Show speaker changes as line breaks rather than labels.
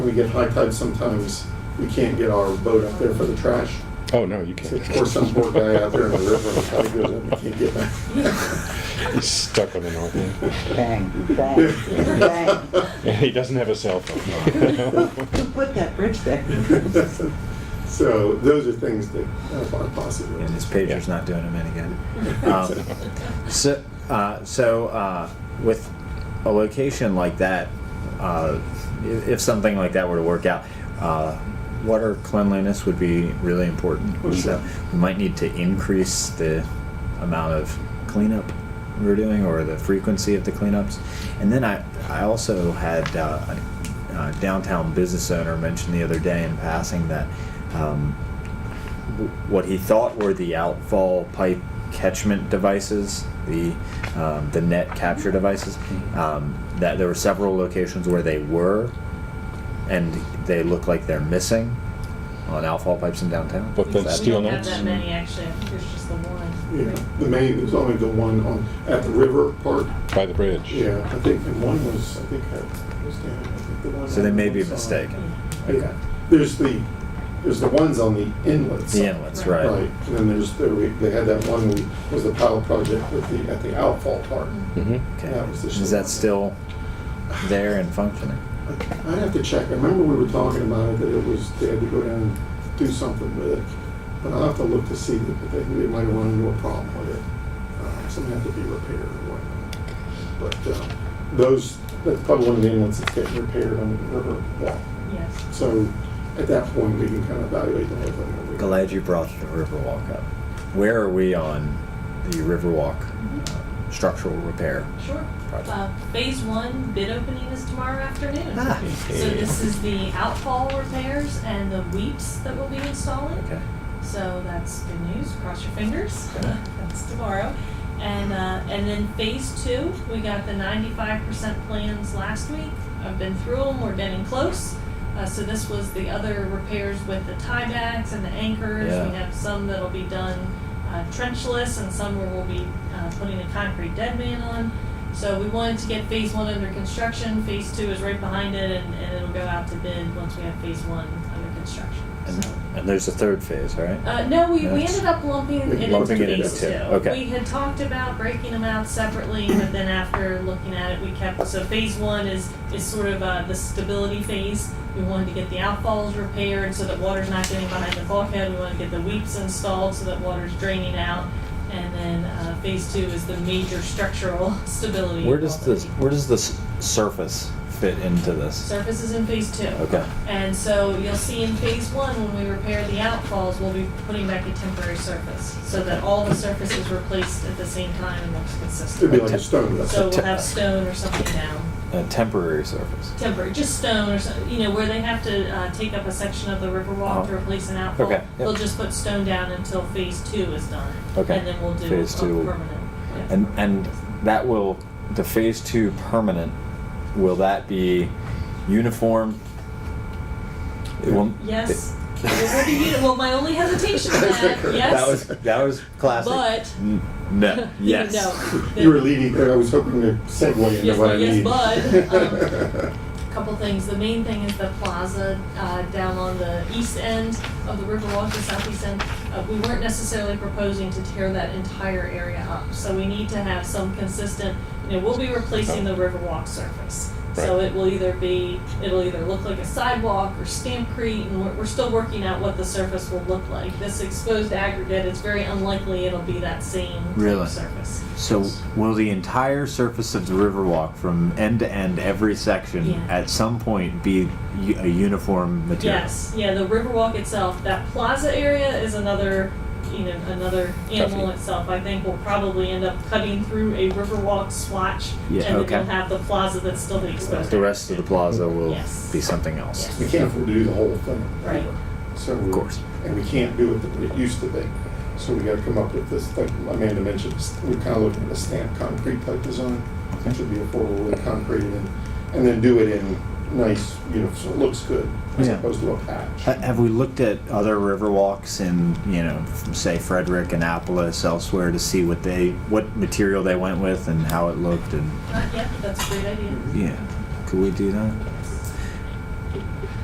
we get high tide, sometimes we can't get our boat up there for the trash.
Oh, no, you
So
can't.
pour some poor guy out there in the river and tide goes up, he can't get back.
He's stuck on the north end.
Bang, bang, bang.
And he doesn't have a cell phone.
Who put that bridge there?
So those are things that are possible.
and his pager's not doing him any good. Um,
Mm-hmm.
so, uh, so uh, with a location like that, uh, if, if something like that were to work out, uh, water cleanliness would be really important. So we might need to increase the amount of cleanup we're doing or the frequency of the cleanups. And then I, I also had uh, a uh, downtown business owner mention the other day in passing that um, what he thought were the outfall pipe catchment devices, the um, the net capture devices. Um, that there were several locations where they were, and they look like they're missing on outfall pipes in downtown.
But then
Is that-
Steel
We don't have
nets?
that many, actually. I think There's just the one.
Yeah, the main, there's only the one on, at the river part.
By the bridge.
Yeah, I think, and one was, I think, I was down, I think the one.
So they may be
on the side.
mistaken.
Yeah, there's the, there's the ones on the inlet
The
side.
inlets,
Right.
right?
Right, and then there's, there we- they had that one, we- was the pilot project with the, at the outfall part.
hmm
Okay.
That was the
Is that still there and functioning?
I'd have to check, I remember we were talking about it, that it was, they had to go down and do something with it. But I'll have to look to see, if they, they might have run into a problem with it. Uh, Something had to be repaired or whatnot. But uh, those, that's probably one of the inlets that's getting repaired on the river walk.
Yes.
So at that point, we can kind of evaluate the whole thing. over.
Glad you brought the Riverwalk up. Where are we on the Riverwalk uh, structural repair?
Sure.
Project.
Uh, phase one bid opening is tomorrow afternoon.
Ah.
So this is the outfall repairs and the weeps that we'll be installing.
Okay.
So that's good news. Cross your fingers.
Okay.
That's tomorrow. And, uh, and then phase two, we got the ninety-five percent plans last week. I've been through them. We're getting close. Uh, so this was the other repairs with the tiebacks and the anchors. We
Yeah.
have some that'll be done uh, trenchless and some where we'll be uh, putting a concrete dead man on. So we wanted to get phase one under construction. Phase two is right behind it and, and it'll go out to bid once we have phase one under construction.
And,
So.
and there's a third phase, right?
Uh, no, we, we
That's-
ended up lumping it into
Lumping it into
phase two.
two, okay.
We had talked about breaking them out separately, but then after looking at it, we kept, so phase one is, is sort of, uh, the stability phase. We wanted to get the outfalls repaired so that water's not getting behind the bulkhead, we wanna get the weeps installed so that water's draining out. And then, uh, phase two is the major structural stability.
Where does
the
this where does this surface fit into this?
Surface is in phase two.
Okay.
And so you'll see in phase one, when we repair the outfalls, we'll be putting back a temporary surface so that all the surface is replaced at the same time and looks
It'd be
consistent.
like a stone. that's-
So we'll have stone or something down,
A temporary surface.
temporary, just stone or some, you know, where they have to, uh, take up a section of the river walk to
Oh.
replace an outfall.
Okay, yep.
They'll just put stone down until phase two is done.
Okay.
And then we'll do a
Phase two will-
permanent. yeah.
And and that will the phase two permanent will that be uniform? It will
Yes. It will be uni- well, my only hesitation is that, yes.
That was that was classic.
But-
N- no. Yes.
No.
You were leading, there. I was hoping to segue into
Yes,
what I
yes,
need.
bud. Um, couple things. The main thing is the plaza uh, down on the east end of the Riverwalk, the southeast end. Uh, we weren't necessarily proposing to tear that entire area up, so we need to have some consistent. You know, we'll be replacing the Riverwalk surface, so
Right.
it will either be it'll either look like a sidewalk or stampcrete, and we're, we're still working out what the surface will look like. This exposed aggregate, it's very unlikely it'll be that same type of
Really?
surface.
So will the entire surface of the Riverwalk, from end to end, every section,
Yeah.
at some point be u- a uniform material?
Yes, yeah, the Riverwalk itself, that plaza area is another, you know, another animal
Toughie.
itself. I think we'll probably end up cutting through a Riverwalk swatch,
Yeah,
and
okay.
then we'll have the plaza that's still the exposed.
The rest of the plaza will
Yes.
be something else.
Yes.
We can't afford to do the whole thing.
Right.
So.
Of course.
And we can't do it that it used to be. So we gotta come up with this, like Amanda mentioned, we're kinda looking at a stamped concrete type design. It should be affordable concrete and, and then do it in nice, you know, so it looks good as
Yeah.
opposed to a
Ha-
patch.
Uh, Have we looked at other Riverwalks in, you know, f- say Frederick, Annapolis, elsewhere, to see what they, what material they went with and how it looked and,
Not yet, but that's a great idea.
yeah, could we do that?